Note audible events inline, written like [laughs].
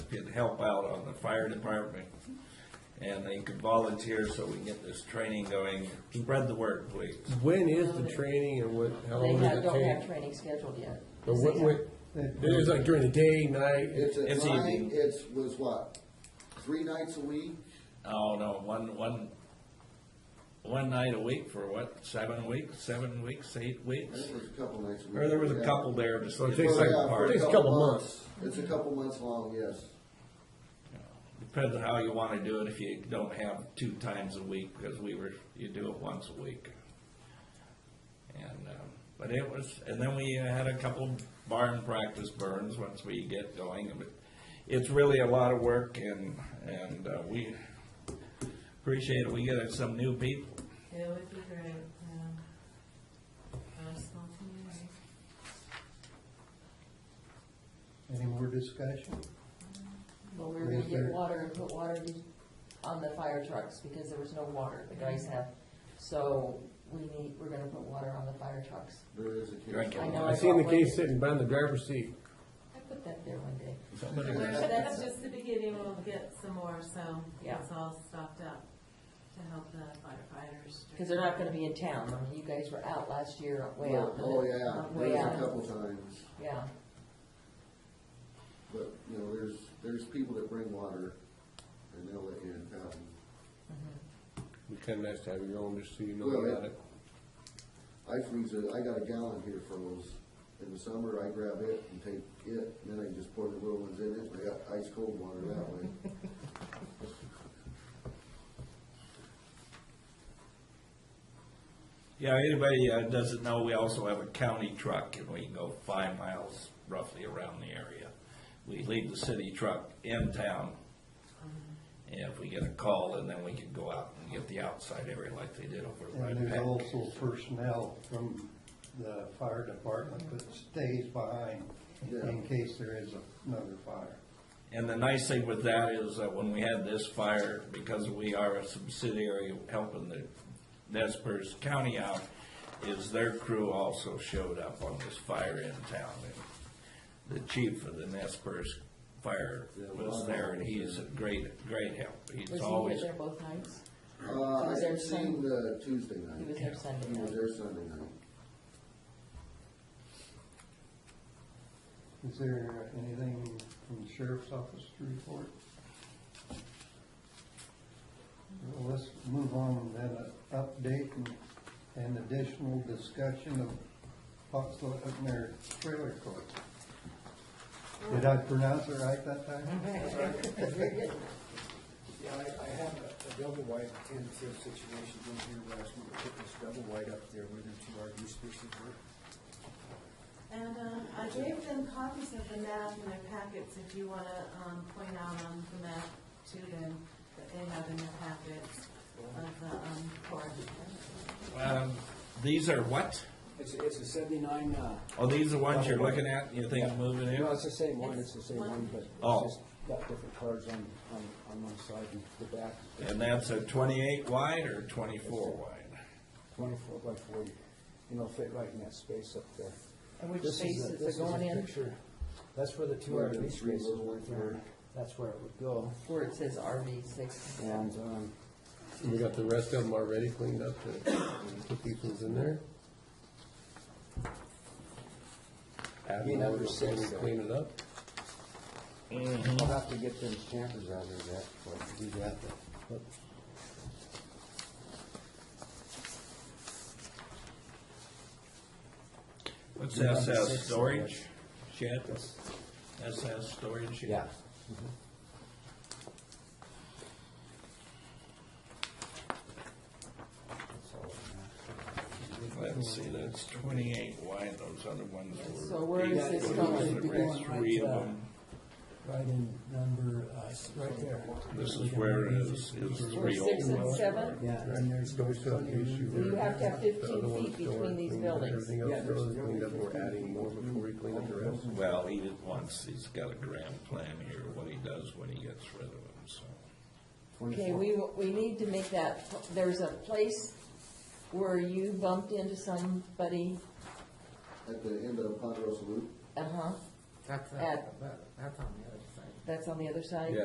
could help out on the fire department. And they could volunteer so we can get this training going. Spread the word, please. When is the training and what, how They long have- does don't it have take? training scheduled yet. But what, what, it was like during the day, night, It's It's at night, evening. it's, was what, three nights a week? Oh, no, one, one, one night a week for what, seven weeks, seven weeks, eight I weeks? think it was a couple nights a week. Or there was a yeah. couple there, just So it it's takes like Yeah, a for party. Takes a couple months. It's a couple months long, yes. Depends on how you wanna do it, if you don't have two times a week, because we were, you do it once a week. And, um, but it was, and then we uh, had a couple barn practice burns once we get going, but it's really a lot of work and, and uh, we appreciate it, we get some new people. It would be great, yeah. Our small community. Any more discussion? Well, we were gonna get water and put water in- on the fire trucks because there was no water, the guys have. So we need, we're gonna put water on the fire trucks. There is a case. Drink it. law. I know I seen the got case one. sitting behind the driver's seat. I put that there one day. Somebody Well, That's just the beginning, we'll get some more, so Yeah. it's all stocked up to help the firefighters. Because they're not gonna be in town. I mean, you guys were out last year, way out. Oh, yeah, Uh, there Way was a out, couple times, yeah. but, you know, there's, there's people that bring water and they'll let you in fountain. Be kinda nice to have your own, just so you know Well, about yeah. it. I freeze it, I got a gallon here for those. In the summer, I grab it and take it, and then I just pour the little ones in it, and I got ice cold water that way. Yeah, anybody uh, doesn't know, we also have a county truck and we can go five miles roughly around the area. We leave the city truck in town. And if we get a call, and then we can go out and get the outside area like they did over at And Rhinebeck. there's also personnel from the fire department that stays behind in Yeah. case there is another fire. And the nice thing with that is that when we had this fire, because we are a subsidiary helping the Nespers County out, is their crew also showed up on this fire in town. And The chief of the Nespers Fire was there, and he's a great, great help. He's Was he always, here there both nights? Uh, was I there seen some- the Tuesday He was night. here Sunday He was night. there Sunday night. Is there anything from the sheriff's office to report? Well, Let's move on then, uh, update and, and additional discussion of Foxville Upner Trailer Court. Did I pronounce it right that time? Yeah, I, I have a a double wide intensive situation in here last week, I put this double wide up there where the two RV spaces were. And um, I gave them copies of the map in their packets, if you want to point out on the map to them that they have in their packets of the um, court. um, these are what? It's, it's a seventy-nine, uh, Oh, these are ones you're looking at, and you think of moving in? no, it's the same one, it's the same one, but Oh. it's just got different cards on, on, on one side and the back, And that's a twenty-eight wide or twenty-four wide? twenty-four by forty. You know, fit right in that space up there. And which This space a- is this it going a in? picture. That's where the two Where the RV three spaces little were, ones were. that's where it would go, Where it says RV six. and, um, We got the rest of them already cleaned up, to put these ones in there. Add Be more number before we six, uh, clean it up. I'll have to get them campers out of that, but do that, but What's Number SS six. storage shed? SS storage shed? Yeah. Let's see, that's twenty-eight wide, those other ones were. So where is eight this foot, going? uh, there were Three of them, Right in number, uh, s- right there. this is where it is, is Where three old six and ones. seven? Yeah, and there's Don't those still have the issue You where have to have the other fifteen one's feet between stored, these cleaned up, buildings. Everything Yeah, else there's- is cleaned up, we're adding more before we clean up the rest. Well, he did once, he's got a grand plan here, what he does when he gets rid of them, so. Okay, we, we need to make that, there's a place where you bumped into somebody, At the end of Ponderosa Loop, uh-huh, [laughs] That's, At- that- that's on the other side. that's on the other side? Yeah.